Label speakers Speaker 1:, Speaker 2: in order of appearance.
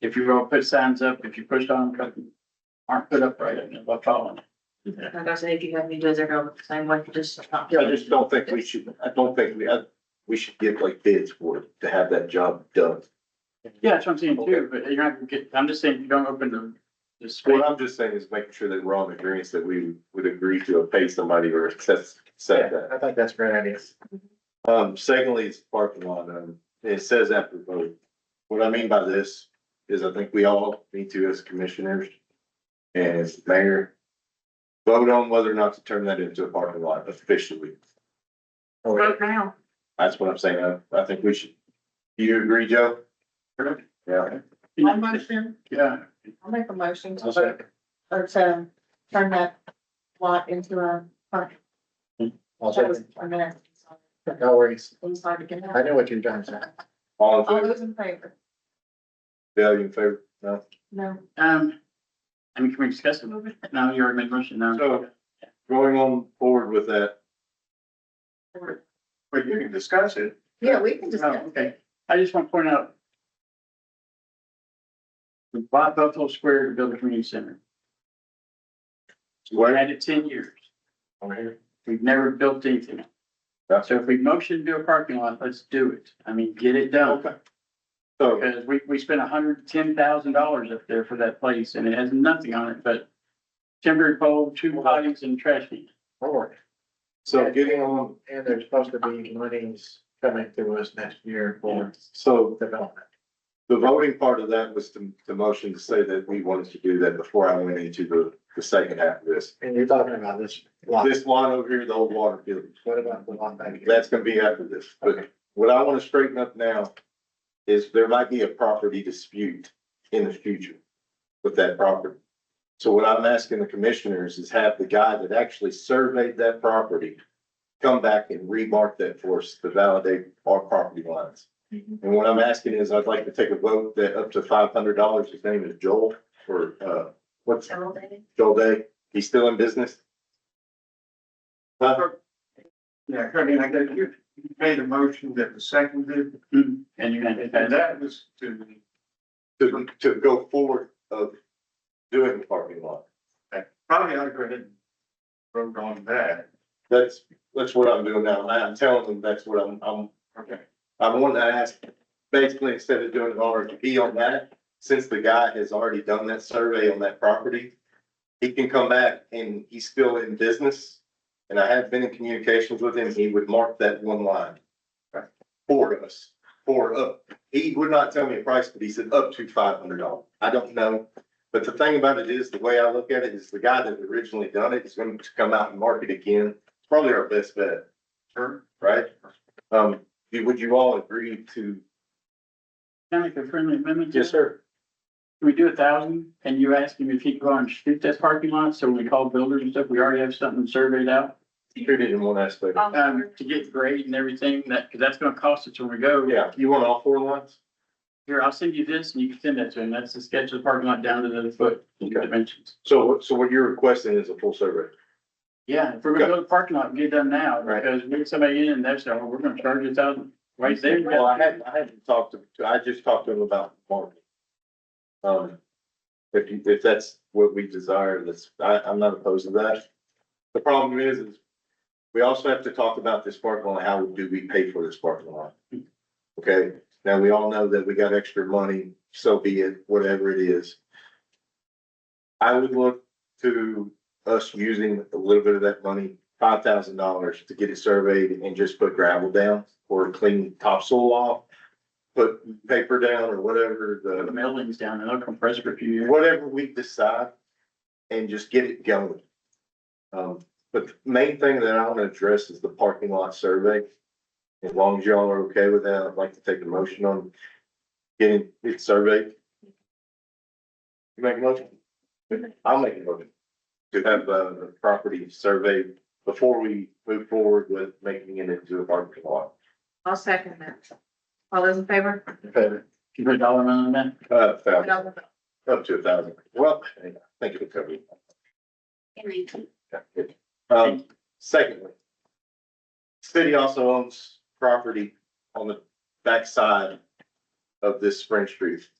Speaker 1: If you don't put signs up, if you push on, them, aren't put up right, I'm not following.
Speaker 2: Like I say, if you have any does it go the same way, just not.
Speaker 3: Yeah, I just don't think we should, I don't think we, I- we should give like bids for, it to have that job done.
Speaker 1: Yeah, that's what I'm saying too, but you're not gonna get, I'm just saying, if you don't open the, the space.
Speaker 3: What I'm just saying is making sure that we're on the agreement that we would agree to pay somebody or assess, set that.
Speaker 4: I think that's a great idea.
Speaker 3: Um, secondly, it's parking lot, um, it says after vote. What I mean by this is I think we all need to as commissioners and as mayor. Vote on whether or not to turn that into a parking lot officially.
Speaker 4: Oh, yeah.
Speaker 2: Right now,
Speaker 3: That's what I'm saying. I, I think we should. Do you agree, Joe? Yeah.
Speaker 2: my motion,
Speaker 1: Yeah,
Speaker 2: I'll make a motion to,
Speaker 3: I'll
Speaker 2: vote-
Speaker 3: second.
Speaker 2: or to turn that lot into a park.
Speaker 4: I'll
Speaker 2: That was
Speaker 4: second.
Speaker 2: a minute.
Speaker 4: No worries.
Speaker 2: Inside again.
Speaker 4: I know what you're trying to say.
Speaker 3: All in
Speaker 2: All
Speaker 3: favor?
Speaker 2: those in favor?
Speaker 3: Bill, you in favor? No?
Speaker 2: No.
Speaker 1: um, I mean, can we discuss it a little bit? No, you already made a motion now.
Speaker 3: So- Going on forward with that.
Speaker 1: But you can discuss it.
Speaker 2: Yeah, we can
Speaker 1: Oh,
Speaker 2: discuss.
Speaker 1: okay. I just want to point out. We bought Buffalo Square to build a community center. We've had it ten years.
Speaker 3: Over here.
Speaker 1: We've never built anything. So if we motion to do a parking lot, let's do it. I mean, get it done.
Speaker 3: Okay. So
Speaker 1: Because we, we spent hundred ten thousand dollars up there for that place and it has nothing on it but timber pole, two potties and trash can.
Speaker 4: Lord.
Speaker 3: So getting on,
Speaker 4: And there's supposed to be monies coming to us next year for
Speaker 3: so
Speaker 4: development.
Speaker 3: the voting part of that was the, the motion to say that we wanted to do that before I went into the, the second half of this.
Speaker 4: And you're talking about this lot.
Speaker 3: This lot over here, the old water field,
Speaker 4: What about the lot back here?
Speaker 3: that's gonna be after this, but what I wanna straighten up now is there might be a property dispute in the future with that property. So what I'm asking the commissioners is have the guy that actually surveyed that property come back and remark that for us to validate our property lines.
Speaker 2: Mhm.
Speaker 3: And what I'm asking is I'd like to take a vote that up to five hundred dollars, his name is Joel, for, uh, what's
Speaker 2: All day.
Speaker 3: Joel Day? He's still in business? Huh?
Speaker 5: Yeah, I mean, I guess you you made a motion that was seconded,
Speaker 1: And you had to.
Speaker 5: and that was to,
Speaker 3: to, to go forward of doing the parking lot.
Speaker 5: probably ought to go ahead and vote on that.
Speaker 3: That's, that's what I'm doing now. and I'm telling them that's what I'm, I'm,
Speaker 5: Okay.
Speaker 3: I'm wanting to ask, basically, instead of doing an RFP on that, since the guy has already done that survey on that property, he can come back and he's still in business. And I have been in communications with him. He would mark that one line for us, for up. He would not tell me a price, but he said up to five hundred dollars. I don't know. But the thing about it is, the way I look at it is the guy that originally done it is going to come out and mark it again. Probably our best bet,
Speaker 5: Sure.
Speaker 3: right? Um, do- would you all agree to?
Speaker 1: Can I make a friendly amendment? to that?
Speaker 3: sir.
Speaker 1: Can we do a thousand? And you ask him if he can go out and shoot that parking lot, so when we call builders and stuff, we already have something surveyed out.
Speaker 3: Treated in one aspect.
Speaker 1: Um, to get grade and everything, that, cause that's gonna cost us when we go.
Speaker 3: Yeah, you want all four lines?
Speaker 1: Here, I'll send you this and you can send that to him. That's the sketch of the parking lot down to the foot
Speaker 3: Okay.
Speaker 1: dimensions.
Speaker 3: So, what- so what you're requesting is a full survey?
Speaker 1: Yeah, if we're gonna go to the parking lot and get it done now,
Speaker 3: Right.
Speaker 1: because we get somebody in and they're saying, well, we're gonna charge you a thousand. Right there.
Speaker 3: Well, I hadn't, I hadn't talked to, I just talked to him about marketing. Um, if you, if that's what we desire, that's, I, I'm not opposed to that. The problem is, is we also have to talk about this parking lot, how do we pay for this parking lot? Okay, now we all know that we got extra money, so be it, whatever it is. I would look to us using a little bit of that money, five thousand dollars to get it surveyed and just put gravel down or clean topsoil off. Put paper down or whatever
Speaker 1: Put The
Speaker 3: the,
Speaker 1: mailings down and they'll compress it for a few years.
Speaker 3: whatever we decide and just get it going. Um, but the main thing that I want to address is the parking lot survey. As long as y'all are okay with that, I'd like to take a motion on getting it surveyed. You make a motion? I'll make a motion to have, uh, the property surveyed before we move forward with making it into a parking lot.
Speaker 2: I'll second that. All those in favor?
Speaker 4: Okay.
Speaker 1: Can you put a dollar amount on that?
Speaker 3: Uh,
Speaker 2: All
Speaker 3: thousand,
Speaker 2: those in favor?
Speaker 3: up to a thousand. Well, I think it'll cover it.
Speaker 2: Henry.
Speaker 3: Um, secondly. City also owns property on the backside of this Spring Street.